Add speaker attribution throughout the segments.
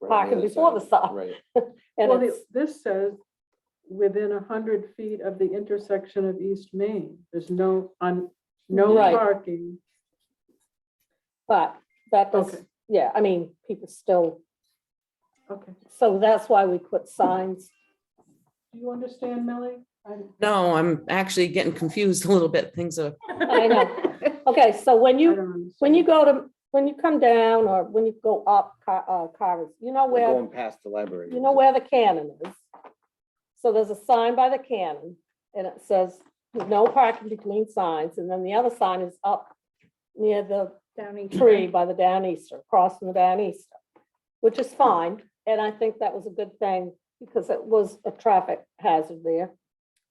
Speaker 1: right, on
Speaker 2: Parking
Speaker 1: other
Speaker 2: before the
Speaker 1: side,
Speaker 2: stop.
Speaker 1: Right,
Speaker 2: And
Speaker 3: Well,
Speaker 2: it's,
Speaker 3: the- this says within a hundred feet of the intersection of East Main. There's no, on, no
Speaker 2: Right.
Speaker 3: parking.
Speaker 2: but that does,
Speaker 3: Okay.
Speaker 2: yeah, I mean, people still,
Speaker 3: Okay.
Speaker 2: so that's why we put signs.
Speaker 3: Do you understand, Millie? I-
Speaker 4: No, I'm actually getting confused a little bit. Things are,
Speaker 2: I know. Okay, so when
Speaker 3: I
Speaker 2: you,
Speaker 3: don't understand.
Speaker 2: when you go to, when you come down or when you go up, car, uh, cars, you know
Speaker 1: We're
Speaker 2: where,
Speaker 1: going past the library.
Speaker 2: you know where the cannon is. So there's a sign by the cannon and it says, no parking between signs. And then the other sign is up near the
Speaker 5: Down
Speaker 2: tree by the Downeaster, crossing the Downeaster, which is fine. And I think that was a good thing because it was a traffic hazard there.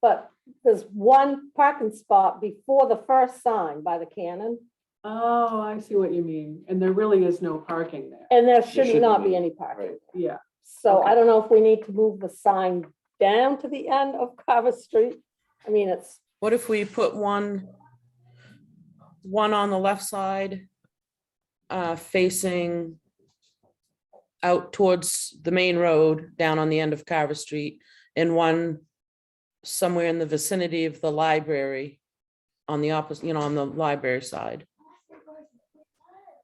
Speaker 2: But there's one parking spot before the first sign by the cannon,
Speaker 3: Oh, I see what you mean. And there really is no parking there.
Speaker 2: and there should
Speaker 1: shouldn't
Speaker 2: not be
Speaker 1: be,
Speaker 2: any
Speaker 1: Right,
Speaker 2: parking.
Speaker 3: Yeah,
Speaker 2: So I
Speaker 3: Okay.
Speaker 2: don't know if we need to move the sign down to the end of Carver Street. I mean, it's,
Speaker 4: what if we put one, one on the left side, uh, facing out towards the main road down on the end of Carver Street and one somewhere in the vicinity of the library on the opposite, you know, on the library side.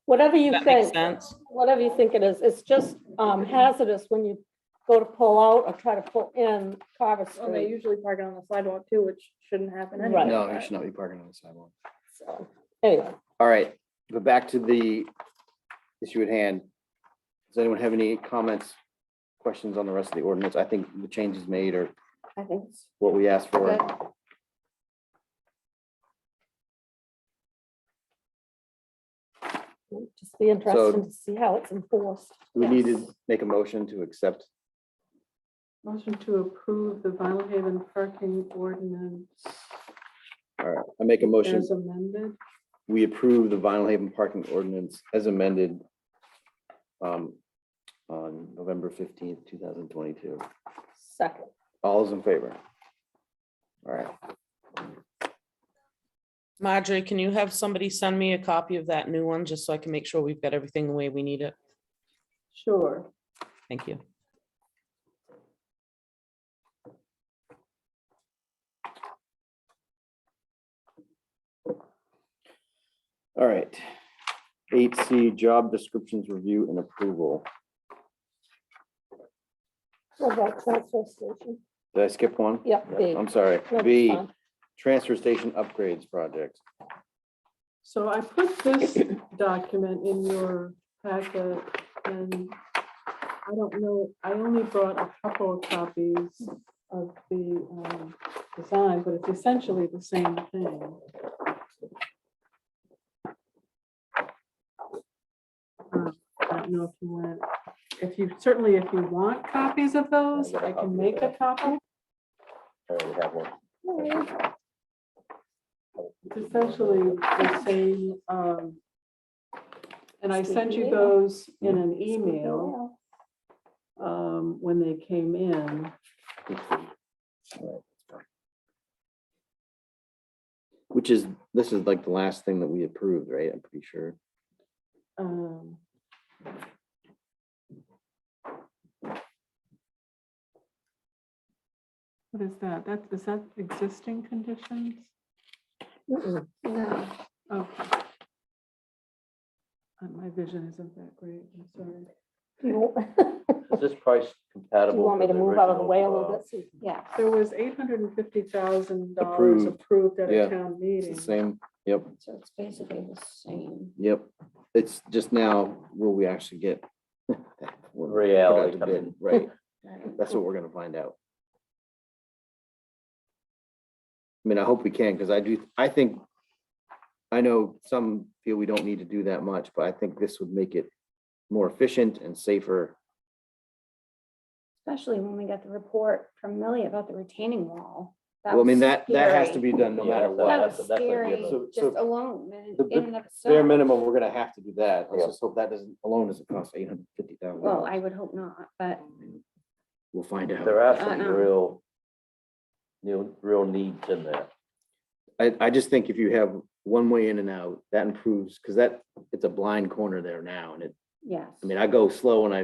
Speaker 2: whatever you
Speaker 4: That makes
Speaker 2: think.
Speaker 4: sense.
Speaker 2: whatever you think it is, it's just um, hazardous when you go to pull out or try to pull in Carver
Speaker 5: And they
Speaker 2: Street.
Speaker 5: usually park it on the sidewalk too, which shouldn't happen
Speaker 2: Right.
Speaker 5: anyway.
Speaker 1: no, you
Speaker 5: but-
Speaker 1: should not be parking on the sidewalk.
Speaker 2: So, Anyway,
Speaker 1: All right, but back to the issue at hand. Does anyone have any comments, questions on the rest of the ordinance? I think the changes made are
Speaker 5: I think it's
Speaker 1: what we asked for.
Speaker 5: good.
Speaker 2: it'll just be interesting to see how it's enforced.
Speaker 1: We need
Speaker 2: Yes.
Speaker 1: to make a motion to accept.
Speaker 3: motion to approve the Vinyl Haven parking ordinance
Speaker 1: All right, I make a motion.
Speaker 3: as amended.
Speaker 1: We approve the Vinyl Haven parking ordinance as amended um, on November fifteenth, two thousand twenty-two.
Speaker 2: Second,
Speaker 1: All is in favor? All right,
Speaker 4: Marjorie, can you have somebody send me a copy of that new one, just so I can make sure we've got everything the way we need it?
Speaker 3: Sure.
Speaker 4: Thank you.
Speaker 1: all right. Eight C, job descriptions review and approval.
Speaker 2: what about transfer station?
Speaker 1: Did I skip one?
Speaker 2: Yep, B.
Speaker 1: I'm sorry.
Speaker 2: No, it's
Speaker 1: B,
Speaker 2: fine.
Speaker 1: transfer station upgrades project.
Speaker 3: So I put this document in your packet and I don't know, I only brought a couple of copies of the um, design, but it's essentially the same thing. Uh, I don't know if you want, if you, certainly if you want copies of those, I can make a copy.
Speaker 1: I already have one.
Speaker 3: It's essentially the same. um, And I sent you those in an email um, when they came in.
Speaker 1: Which is, this is like the last thing that we approved, right? I'm pretty sure.
Speaker 3: um, What is that? That, is that existing conditions?
Speaker 2: Mm-mm.
Speaker 5: No.
Speaker 3: Okay. Uh, My vision isn't that great, I'm sorry.
Speaker 2: You
Speaker 6: Is this price compatible?
Speaker 2: want me
Speaker 6: with
Speaker 2: to
Speaker 6: the
Speaker 2: move out of the
Speaker 6: original,
Speaker 2: way a little
Speaker 6: uh,
Speaker 2: bit? so you can-
Speaker 5: Yeah.
Speaker 3: There was eight hundred and fifty thousand dollars
Speaker 1: Approved.
Speaker 3: approved at
Speaker 1: Yeah.
Speaker 3: a town
Speaker 1: It's the
Speaker 3: meeting.
Speaker 1: same. Yep,
Speaker 5: So it's basically the same.
Speaker 1: yep. It's just now, will we actually get? that when we put out
Speaker 6: Reality
Speaker 1: to
Speaker 6: come
Speaker 1: bid,
Speaker 6: in.
Speaker 1: Right, that's
Speaker 5: Hmm.
Speaker 1: what we're gonna find out. I mean, I hope we can, because I do, I think, I know some feel we don't need to do that much, but I think this would make it more efficient and safer.
Speaker 5: Especially when we got the report from Millie about the retaining wall.
Speaker 1: Well, I mean,
Speaker 5: was
Speaker 1: that, that has to
Speaker 5: scary.
Speaker 1: be done no
Speaker 6: Yeah,
Speaker 1: matter
Speaker 6: that-
Speaker 1: what.
Speaker 5: That
Speaker 6: that's-
Speaker 5: was
Speaker 6: that's a
Speaker 5: scary,
Speaker 6: given.
Speaker 1: So- so
Speaker 5: just alone, in-
Speaker 1: the-
Speaker 5: in and of
Speaker 1: Bare
Speaker 5: itself.
Speaker 1: minimum, we're gonna have to do that. Let's
Speaker 6: Yeah.
Speaker 1: just hope that doesn't, alone doesn't cost eight hundred fifty thousand.
Speaker 5: Well, I would hope not, but
Speaker 6: Mm.
Speaker 1: We'll find out.
Speaker 6: There are
Speaker 5: I
Speaker 6: some
Speaker 5: know.
Speaker 6: real, real, real needs in there.
Speaker 1: I, I just think if you have one way in and out, that improves, because that, it's a blind corner there now, and it,
Speaker 5: yes.
Speaker 1: I mean, I go slow and I